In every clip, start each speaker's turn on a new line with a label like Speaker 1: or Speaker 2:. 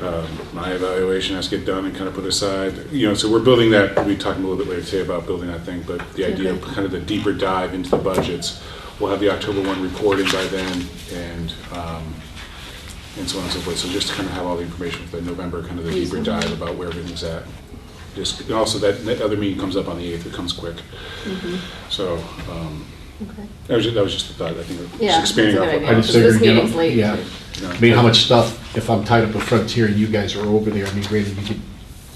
Speaker 1: um, my evaluation has to get done and kind of put aside. You know, so we're building that, we'll be talking a little bit later today about building that thing, but the idea of
Speaker 2: Okay.
Speaker 1: kind of the deeper dive into the budgets. We'll have the October 1 reporting by then and, um, and so on and so forth. So just to kind of have all the information for the November, kind of the deeper dive about where everything's at. Just, and also that, that other meeting comes up on the 8th, it comes quick.
Speaker 2: Mm-hmm.
Speaker 1: So, um,
Speaker 2: Okay.
Speaker 1: that was, ju- that was just a thought, I think. of
Speaker 2: Yeah,
Speaker 1: Just expanding
Speaker 2: that's
Speaker 1: off
Speaker 2: a good
Speaker 1: what
Speaker 2: idea.
Speaker 1: Howard
Speaker 3: I
Speaker 2: Because
Speaker 3: just
Speaker 2: this
Speaker 3: figured, you
Speaker 2: meeting's
Speaker 3: know,
Speaker 2: late.
Speaker 3: yeah.
Speaker 1: No.
Speaker 3: I mean, how much stuff, if I'm tied up with Frontier and you guys are over there, I mean, granted, you could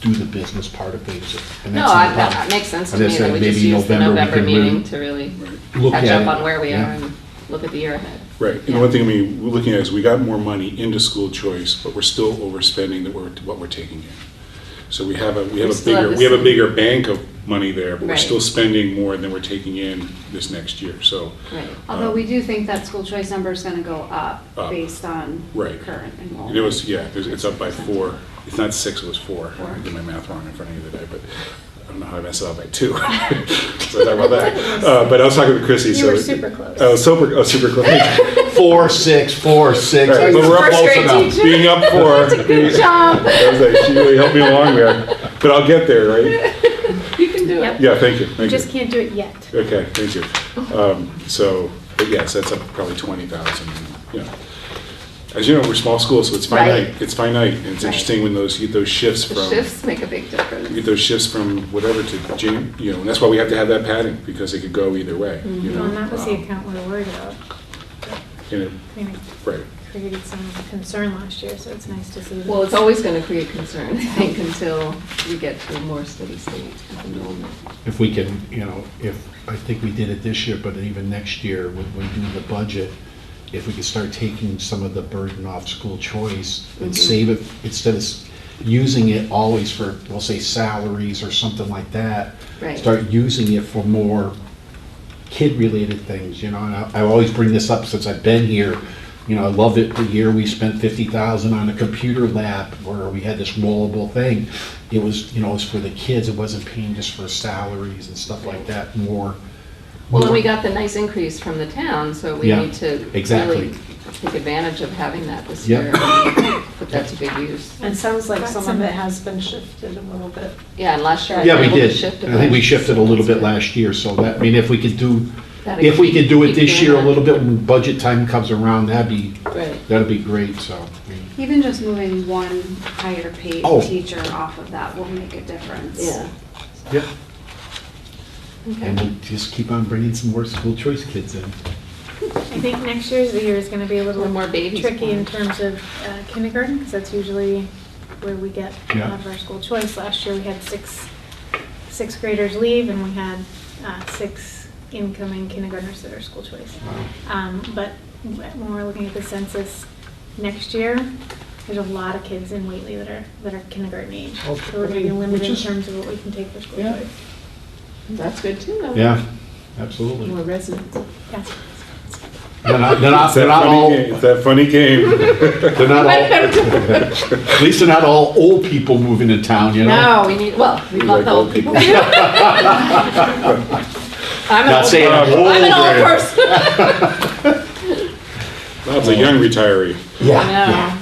Speaker 3: do the business part of things. and
Speaker 2: No,
Speaker 3: that's
Speaker 2: I-
Speaker 3: problem.
Speaker 2: that makes sense to
Speaker 3: I'm
Speaker 2: me
Speaker 3: just
Speaker 2: that
Speaker 3: saying,
Speaker 2: we just
Speaker 3: maybe
Speaker 2: use the
Speaker 3: November we
Speaker 2: November
Speaker 3: can
Speaker 2: meeting
Speaker 3: really
Speaker 2: to really
Speaker 3: look
Speaker 2: catch up
Speaker 3: at it,
Speaker 2: on where we are
Speaker 3: yeah.
Speaker 2: and look at the year ahead.
Speaker 1: Right, and
Speaker 2: Yeah.
Speaker 1: one thing, I mean, we're looking at is we got more money into school choice, but we're still overspending that we're, what we're taking in. So we have a, we
Speaker 2: We
Speaker 1: have a
Speaker 2: still have
Speaker 1: bigger,
Speaker 2: the
Speaker 1: we have a
Speaker 2: same-
Speaker 1: bigger bank of money there, but we're
Speaker 2: Right.
Speaker 1: still spending more than we're taking in this next year, so. uh,
Speaker 2: Right.
Speaker 4: Although we do think that school choice number is gonna go up
Speaker 1: Um, Up.
Speaker 4: based on
Speaker 1: Right.
Speaker 4: current enrollment.
Speaker 1: It was, yeah, it's it's up by four, it's not six, it was four.
Speaker 4: Four.
Speaker 1: I did my math wrong in front of you today, but I don't know how I messed it up by two. So talk about that. Uh, But I was talking with Chrissy, so.
Speaker 5: You were super close.
Speaker 1: I was super, I was super close.
Speaker 3: Four, six, four, six.
Speaker 1: All right, but we're up
Speaker 3: Close
Speaker 2: straight
Speaker 3: enough.
Speaker 2: teacher.
Speaker 1: Being up four. being-
Speaker 2: job.
Speaker 1: I was like, she really helped me along there, but I'll get there, right?
Speaker 2: You can do
Speaker 5: Yep.
Speaker 2: it.
Speaker 1: Yeah, thank you,
Speaker 5: You
Speaker 1: thank
Speaker 5: just
Speaker 1: you.
Speaker 5: can't do it yet.
Speaker 1: Okay, thank you. Um, So, but yes, that's up probably twenty thousand, you know. As you know, we're small school, so it's finite,
Speaker 2: Right.
Speaker 1: it's finite, and it's
Speaker 2: Right.
Speaker 1: interesting when those, you get those shifts
Speaker 2: The
Speaker 1: from,
Speaker 2: shifts make a big
Speaker 1: you
Speaker 2: difference.
Speaker 1: get those shifts from whatever to, Jan- you know, and that's why we have to have that padding, because it could go either way, you know.
Speaker 5: Mm-hmm. Well, and that was the
Speaker 1: Um,
Speaker 5: account we were worried about.
Speaker 1: you know,
Speaker 5: I mean,
Speaker 1: Right,
Speaker 5: it created some concern last year, so it's nice to see. that-
Speaker 2: Well, it's always going to create concern, I think, until we get to a more steady state of enrollment.
Speaker 3: If we can, you know, if, I think we did it this year, but even next year, when we do the budget, if we could start taking some of the burden off school choice and save it, instead of s- using it always for, we'll say salaries or something like that.
Speaker 2: Right.
Speaker 3: Start using it for more kid-related things, you know, and I, I always bring this up since I've been here. You know, I love it, the year we spent fifty thousand on a computer lab where we had this rollable thing. It was, you know, it was for the kids, it wasn't paying just for salaries and stuff like that, more.
Speaker 2: Well, and we
Speaker 3: more-
Speaker 2: got the nice increase from the town, so we
Speaker 3: Yeah,
Speaker 2: need to really
Speaker 3: exactly.
Speaker 2: take advantage of having that this
Speaker 3: Yep.
Speaker 2: year. and Put that to good use.
Speaker 6: It sounds like some of
Speaker 5: Proximate.
Speaker 6: it has been shifted a little bit.
Speaker 2: Yeah, and last year.
Speaker 3: Yeah, we
Speaker 2: able to
Speaker 3: did.
Speaker 2: shift
Speaker 3: I think we
Speaker 2: about-
Speaker 3: shifted a little bit last year, so that, I mean, if we could do,
Speaker 2: That'd
Speaker 3: if we could do it
Speaker 2: keep
Speaker 3: this
Speaker 2: doing
Speaker 3: year a
Speaker 2: that.
Speaker 3: little bit when budget time comes around, that'd be,
Speaker 2: Right.
Speaker 3: that'd be great, so. I mean,
Speaker 4: Even just moving one higher paid
Speaker 3: Oh.
Speaker 4: teacher off of that will make a difference.
Speaker 2: Yeah.
Speaker 3: Yep.
Speaker 2: Okay.
Speaker 3: And we'll just keep on bringing some more school choice kids in.
Speaker 5: I think next year's the year is going to be a little
Speaker 2: When more babies
Speaker 5: tricky in
Speaker 2: born.
Speaker 5: terms of uh, kindergarten, because that's usually where we get a
Speaker 3: Yeah.
Speaker 5: lot of our school choice. Last year, we had six, sixth graders leave, and we had uh, six incoming kindergartners that are school choice. Um, But when we're looking at the census next year, there's a lot of kids in Whately that are, that are kindergarten age. So
Speaker 3: Oh,
Speaker 5: we're going to be
Speaker 3: okay,
Speaker 5: limited
Speaker 3: which
Speaker 5: in
Speaker 3: is-
Speaker 5: terms of what we can take for school
Speaker 3: Yeah.
Speaker 5: choice.
Speaker 2: That's good too, though.
Speaker 3: Yeah, absolutely.
Speaker 2: More residents.
Speaker 5: Yeah.
Speaker 3: They're not, they're not,
Speaker 1: it's that
Speaker 3: they're not all,
Speaker 1: funny game, it's that funny game.
Speaker 3: they're not all, at least they're not all old people moving to town, you know?
Speaker 2: No, we need, well, we
Speaker 1: We
Speaker 2: love
Speaker 1: like
Speaker 2: the
Speaker 1: old
Speaker 2: old people. I'm an
Speaker 3: Not
Speaker 2: old,
Speaker 3: saying I'm old.
Speaker 2: I'm an old
Speaker 3: or-
Speaker 2: person.
Speaker 1: That's a young retiree.
Speaker 3: Yeah,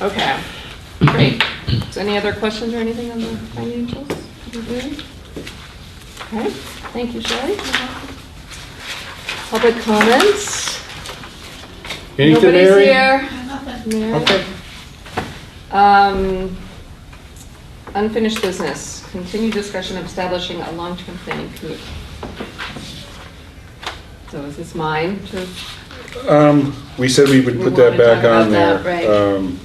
Speaker 2: No. Okay, great. So any other questions or anything on the financials? We're good? Okay, thank you, Shelley. Public comments?
Speaker 3: Anything, Mary?
Speaker 2: Nobody's here. Mary?
Speaker 3: Okay.
Speaker 2: Um, unfinished business, continued discussion of establishing a long-term planning committee. So is this mine to,
Speaker 1: Um, we said we would
Speaker 2: We
Speaker 1: put that
Speaker 2: wanna talk
Speaker 1: back on
Speaker 2: about that, right.
Speaker 1: there. Um,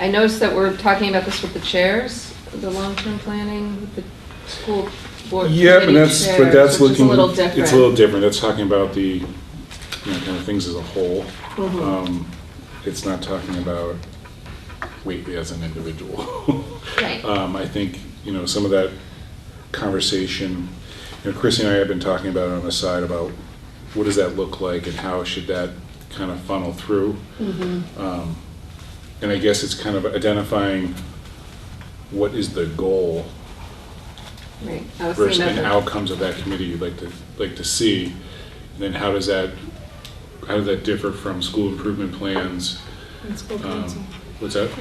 Speaker 2: I noticed that we're talking about this with the chairs, the long-term planning, with the school board committee
Speaker 1: Yeah,
Speaker 2: chairs,
Speaker 1: but that's, but that's
Speaker 2: which is a
Speaker 1: looking.
Speaker 2: little different.
Speaker 1: It's a little different, that's talking about the, you know, kind of things as a whole. Um, It's not talking about Whately as an individual.
Speaker 2: Right.
Speaker 1: Um, I think, you know, some of that conversation, you know, Chrissy and I have been talking about it on the side about what does that look like and how should that kind of funnel through? Um, And I guess it's kind of identifying what is the goal
Speaker 2: Right, I was
Speaker 1: versus
Speaker 2: thinking
Speaker 1: the
Speaker 2: about
Speaker 1: outcomes of that committee you'd like to, like to see. And then how does that, how does that differ from school improvement plans?
Speaker 5: And school
Speaker 1: Um,
Speaker 5: council.
Speaker 1: What's that?